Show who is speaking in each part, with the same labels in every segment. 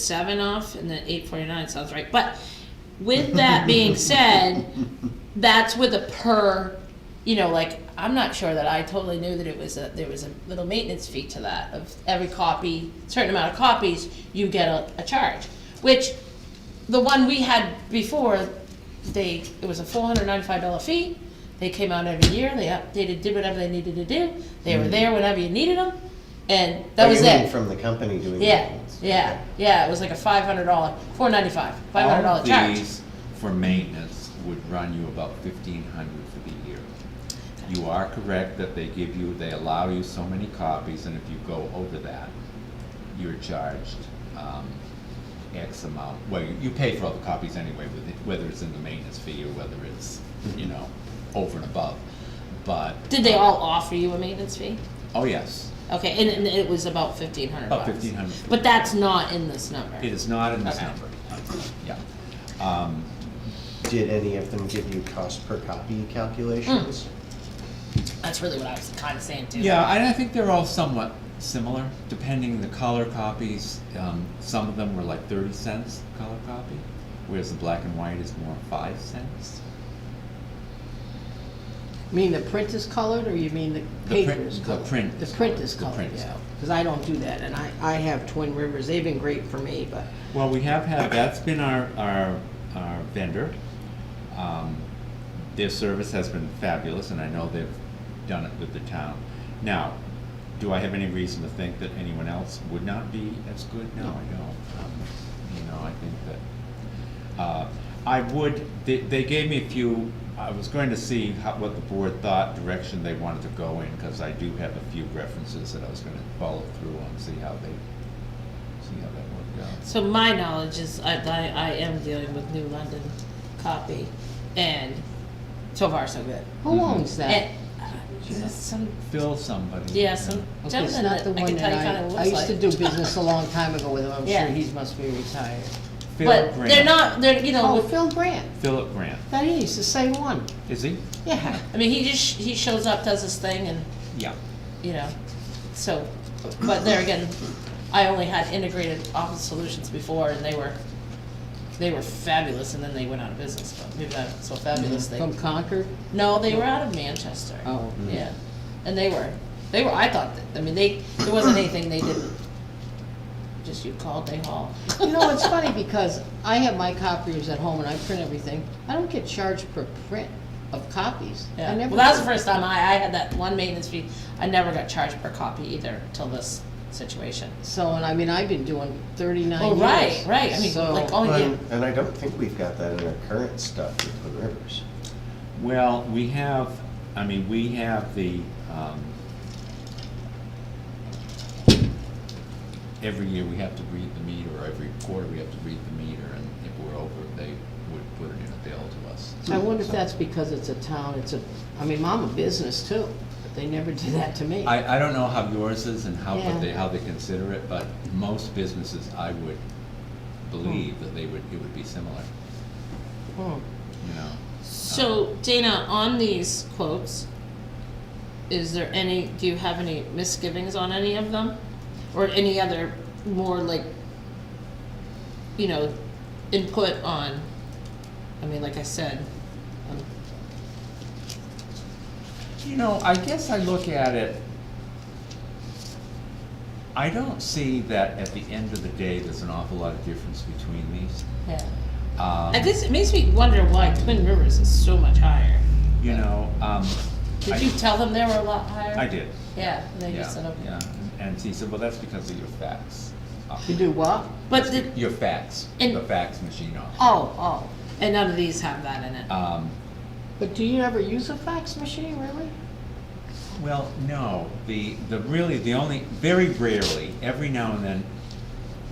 Speaker 1: seven off and then eight forty-nine sounds right, but with that being said, that's with a per, you know, like, I'm not sure that I totally knew that it was a, there was a little maintenance fee to that of every copy, certain amount of copies, you get a, a charge, which the one we had before, they, it was a four hundred ninety-five dollar fee. They came out every year, they updated, did whatever they needed to do, they were there whenever you needed them, and that
Speaker 2: Oh,
Speaker 1: was
Speaker 2: you mean
Speaker 1: it.
Speaker 2: From the company doing.
Speaker 1: Yeah,
Speaker 2: maintenance.
Speaker 1: yeah, yeah, it was like a five hundred dollar, four ninety-five, five hundred dollar
Speaker 3: All of
Speaker 1: charge.
Speaker 3: these for maintenance would run you about fifteen hundred for the year. You are correct that they give you, they allow you so many copies, and if you go over that, you're charged, um, X amount. Well, you- you pay for all the copies anyway, with it- whether it's in the maintenance fee or whether it's, you know, over and above, but.
Speaker 1: Did they all offer you a maintenance fee?
Speaker 3: Oh, yes,
Speaker 1: Okay, and, and it was about fifteen hundred
Speaker 3: about
Speaker 1: bucks.
Speaker 3: fifteen hundred.
Speaker 1: But that's not in this number.
Speaker 3: It is not in this
Speaker 1: Okay.
Speaker 3: number, yeah. Um,
Speaker 2: Did any of them give you cost per copy calculations?
Speaker 1: Mm. That's really what I was kinda saying too.
Speaker 3: Yeah, and I think they're all somewhat similar, depending the color copies. Um, some of them were like thirty cents color copy, whereas the black and white is more five cents.
Speaker 4: You mean the print is colored, or you mean the
Speaker 3: The
Speaker 4: paper
Speaker 3: print-
Speaker 4: is
Speaker 3: the
Speaker 4: colored?
Speaker 3: print
Speaker 4: The
Speaker 3: is
Speaker 4: print
Speaker 3: colored.
Speaker 4: is
Speaker 3: The
Speaker 4: colored,
Speaker 3: print is
Speaker 4: yeah,
Speaker 3: colored.
Speaker 4: because I don't do that, and I, I have Twin Rivers, they've been great for me, but
Speaker 3: Well, we have had, that's been our, our, our vendor. Um, Their service has been fabulous, and I know they've done it with the town. Now, do I have any reason to think that anyone else would not be as good? No, I don't. Um, You know, I think that, uh, I would, they, they gave me a few, I was going to see how, what the board thought, direction they wanted to go in, because I do have a few references that I was gonna follow through on, see how they, see how that worked out.
Speaker 1: So my knowledge is, I, I, I am dealing with New London copy, and so far so good.
Speaker 4: who
Speaker 3: Mhm.
Speaker 4: owns that?
Speaker 1: And, uh, is this some,
Speaker 3: Fill somebody.
Speaker 1: yeah, some
Speaker 4: Okay, it's
Speaker 1: gentleman
Speaker 4: not
Speaker 1: that
Speaker 4: the
Speaker 1: I
Speaker 4: one
Speaker 1: can tell you
Speaker 4: that
Speaker 1: kinda looks
Speaker 4: I,
Speaker 1: like.
Speaker 4: I used to do business a long time ago with him, I'm
Speaker 1: Yeah.
Speaker 4: sure he must be retired.
Speaker 3: Phil
Speaker 1: But
Speaker 3: Grant.
Speaker 1: they're not, they're, you know,
Speaker 4: Oh,
Speaker 1: with-
Speaker 4: Phil Brandt,
Speaker 3: Philip Grant.
Speaker 4: that is, the same one,
Speaker 3: Is he?
Speaker 4: yeah.
Speaker 1: I mean, he just, he shows up, does his thing, and
Speaker 3: Yeah.
Speaker 1: you know, so, but there again, I only had integrated office solutions before and they were, they were fabulous and then they went out of business, but maybe not so fabulous they,
Speaker 4: From Concord?
Speaker 1: no, they were out of Manchester.
Speaker 4: Mm-hmm. Oh.
Speaker 1: Yeah, and they were, they were, I thought that, I mean, they, there wasn't anything they didn't, just you called, they hauled.
Speaker 4: You know, it's funny because I have my copiers at home and I print everything. I don't get charged per print of copies. I
Speaker 1: Yeah,
Speaker 4: never
Speaker 1: well, that was
Speaker 4: do.
Speaker 1: the first time I, I had that one maintenance fee, I never got charged per copy either till this situation.
Speaker 4: So, and I mean, I've been doing thirty-nine years.
Speaker 1: Oh, right, right, I mean,
Speaker 4: so-
Speaker 1: like, oh, yeah.
Speaker 2: And and I don't think we've got that in our current stuff with Twin Rivers.
Speaker 3: Well, we have, I mean, we have the, um, every year we have to read the meter, or every quarter we have to read the meter, and if we're over, they would put it in a bill to us.
Speaker 4: I wonder if that's because it's a town, it's a, I mean, I'm a business too, but they never do that to me.
Speaker 3: I, I don't know how yours is and how,
Speaker 4: Yeah.
Speaker 3: what they, how they consider it, but most businesses, I would believe that they would, it would be similar,
Speaker 4: Hmm.
Speaker 3: you know?
Speaker 1: So Dana, on these quotes, is there any, do you have any misgivings on any of them? Or any other more like, you know, input on, I mean, like I said, um,
Speaker 3: Uh, You know, I guess I look at it, I don't see that at the end of the day, there's an awful lot of difference between these.
Speaker 1: yeah.
Speaker 3: Um,
Speaker 1: I guess it makes me wonder why Twin Rivers is so much higher.
Speaker 3: You know, um. I-
Speaker 1: Did you tell them they were a lot higher?
Speaker 3: I did,
Speaker 1: Yeah, and they
Speaker 3: yeah,
Speaker 1: just said, okay.
Speaker 3: yeah, and she said, well, that's because of your fax. uh,
Speaker 4: You do what?
Speaker 1: But the,
Speaker 3: Your fax,
Speaker 1: And-
Speaker 3: the fax machine office.
Speaker 1: oh, oh, and none of these have that in it.
Speaker 3: Um,
Speaker 4: But do you ever use a fax machine, really?
Speaker 3: Well, no, the, the really, the only, very rarely, every now and then,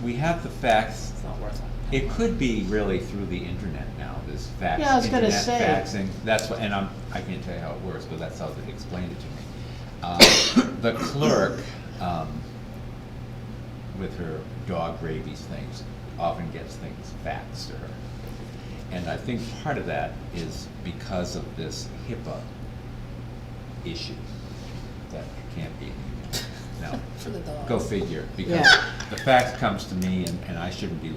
Speaker 3: we have the fax.
Speaker 1: It's not worth it.
Speaker 3: It could be really through the internet now, this fax.
Speaker 4: Yeah, I was gonna
Speaker 3: internet
Speaker 4: say.
Speaker 3: Faxing, that's what, and I'm, I can't tell you how it works, but that's how they explained it to me. Uh, The clerk, um, with her dog rabies things, often gets things faxed to her. And I think part of that is because of this HIPAA issue, that it can't be. no.
Speaker 1: for the dogs.
Speaker 3: Go figure, because
Speaker 4: Yeah.
Speaker 3: the fax comes to me and, and I shouldn't be